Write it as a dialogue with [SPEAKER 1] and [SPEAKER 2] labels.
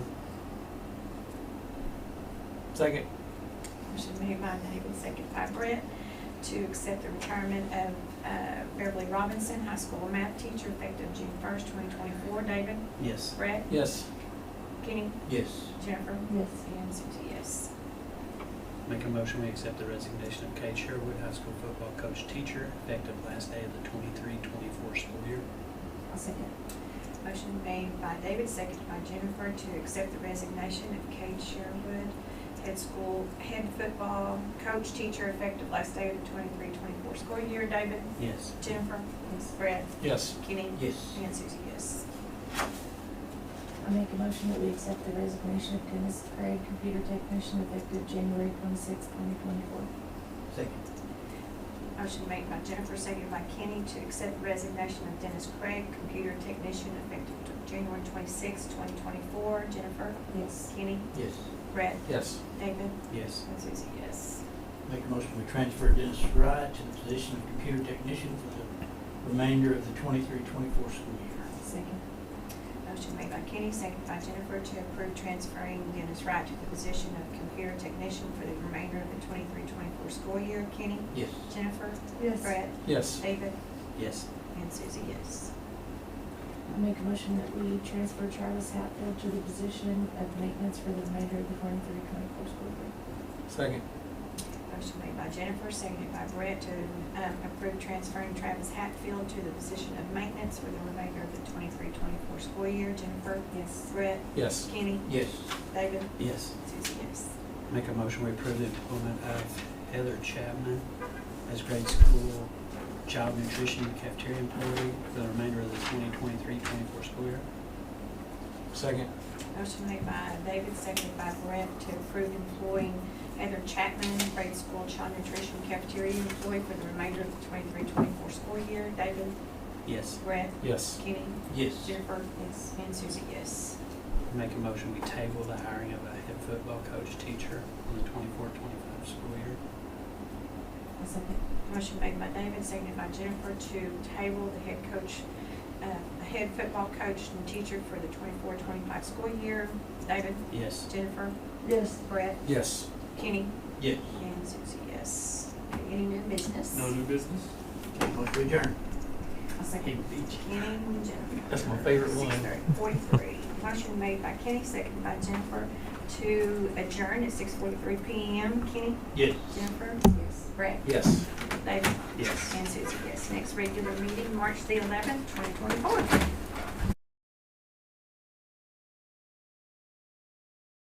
[SPEAKER 1] Second.
[SPEAKER 2] Motion made by Nagel, second by Brett, to accept the retirement of uh, Beverly Robinson, high school math teacher, effective June first, twenty twenty-four. David?
[SPEAKER 3] Yes.
[SPEAKER 2] Brett?
[SPEAKER 1] Yes.
[SPEAKER 2] Kenny?
[SPEAKER 3] Yes.
[SPEAKER 2] Jennifer?
[SPEAKER 4] Yes.
[SPEAKER 2] And Susie, yes.
[SPEAKER 3] Make a motion, we accept the resignation of Kate Sherwood, high school football coach teacher, effective last day of the 23-24 school year.
[SPEAKER 4] I'll second.
[SPEAKER 2] Motion made by David, second by Jennifer, to accept the resignation of Kate Sherwood, head school, head football coach, teacher, effective last day of the twenty-three, twenty-four school year. David?
[SPEAKER 3] Yes.
[SPEAKER 2] Jennifer?
[SPEAKER 4] Yes.
[SPEAKER 2] Brett?
[SPEAKER 1] Yes.
[SPEAKER 2] Kenny?
[SPEAKER 3] Yes.
[SPEAKER 2] And Susie, yes.
[SPEAKER 4] I make a motion that we accept the resignation of Dennis Craig, computer technician, effective January twenty-sixth, twenty twenty-four.
[SPEAKER 3] Second.
[SPEAKER 2] Motion made by Jennifer, seconded by Kenny, to accept the resignation of Dennis Craig, computer technician, effective t- January twenty-sixth, twenty twenty-four. Jennifer?
[SPEAKER 4] Yes.
[SPEAKER 2] Kenny?
[SPEAKER 3] Yes.
[SPEAKER 2] Brett?
[SPEAKER 1] Yes.
[SPEAKER 2] David?
[SPEAKER 3] Yes.
[SPEAKER 2] And Susie, yes.
[SPEAKER 5] Make a motion we transfer Dennis Fry to the position of computer technician for the remainder of the 23-24 school year.
[SPEAKER 4] Second.
[SPEAKER 2] Motion made by Kenny, seconded by Jennifer, to approve transferring Dennis Wright to the position of computer technician for the remainder of the twenty-three, twenty-four school year. Kenny?
[SPEAKER 5] Yes.
[SPEAKER 2] Jennifer?
[SPEAKER 4] Yes.
[SPEAKER 2] Brett?
[SPEAKER 1] Yes.
[SPEAKER 2] David?
[SPEAKER 3] Yes.
[SPEAKER 2] And Susie, yes.
[SPEAKER 4] I make a motion that we transfer Travis Hatfield to the position of maintenance for the remainder of the twenty-three, twenty-four school year.
[SPEAKER 1] Second.
[SPEAKER 2] Motion made by Jennifer, seconded by Brett to um, approve transferring Travis Hatfield to the position of maintenance for the remainder of the 23-24 school year. Jennifer?
[SPEAKER 4] Yes.
[SPEAKER 2] Brett?
[SPEAKER 1] Yes.
[SPEAKER 2] Kenny?
[SPEAKER 5] Yes.
[SPEAKER 2] David?
[SPEAKER 3] Yes.
[SPEAKER 2] Susie, yes.
[SPEAKER 3] Make a motion, we approve the employment of Heather Chapman as grade school child nutrition cafeteria employee for the remainder of the 2023-24 school year.
[SPEAKER 1] Second.
[SPEAKER 2] Motion made by David, seconded by Brett to approve employing Heather Chapman, grade school child nutrition cafeteria employee for the remainder of the 23-24 school year. David?
[SPEAKER 3] Yes.
[SPEAKER 2] Brett?
[SPEAKER 1] Yes.
[SPEAKER 2] Kenny?
[SPEAKER 5] Yes.
[SPEAKER 2] Jennifer?
[SPEAKER 4] Yes.
[SPEAKER 2] And Susie, yes.
[SPEAKER 3] Make a motion, we table the hiring of a head football coach teacher for the 24-25 school year.
[SPEAKER 4] I'll second.
[SPEAKER 2] Motion made by David, seconded by Jennifer to table the head coach, uh, the head football coach and teacher for the 24-25 school year. David,
[SPEAKER 3] Yes.
[SPEAKER 2] Jennifer,
[SPEAKER 4] Yes.
[SPEAKER 2] Brett,
[SPEAKER 1] Yes.
[SPEAKER 2] Kenny,
[SPEAKER 5] Yes.
[SPEAKER 2] and Susie, yes. Any new business?
[SPEAKER 1] new business?
[SPEAKER 5] Take a motion to adjourn.
[SPEAKER 4] I'll second.
[SPEAKER 2] Kenny and Jennifer.
[SPEAKER 1] That's my favorite one.
[SPEAKER 2] 6:43. Motion made by Kenny, seconded by Jennifer to adjourn at six forty-three PM. Kenny,
[SPEAKER 5] Yes.
[SPEAKER 2] Jennifer,
[SPEAKER 4] Yes.
[SPEAKER 2] Brett,
[SPEAKER 1] Yes.
[SPEAKER 2] David,
[SPEAKER 3] Yes.
[SPEAKER 2] and Susie, yes. Next regular meeting, March the eleventh, twenty twenty-four.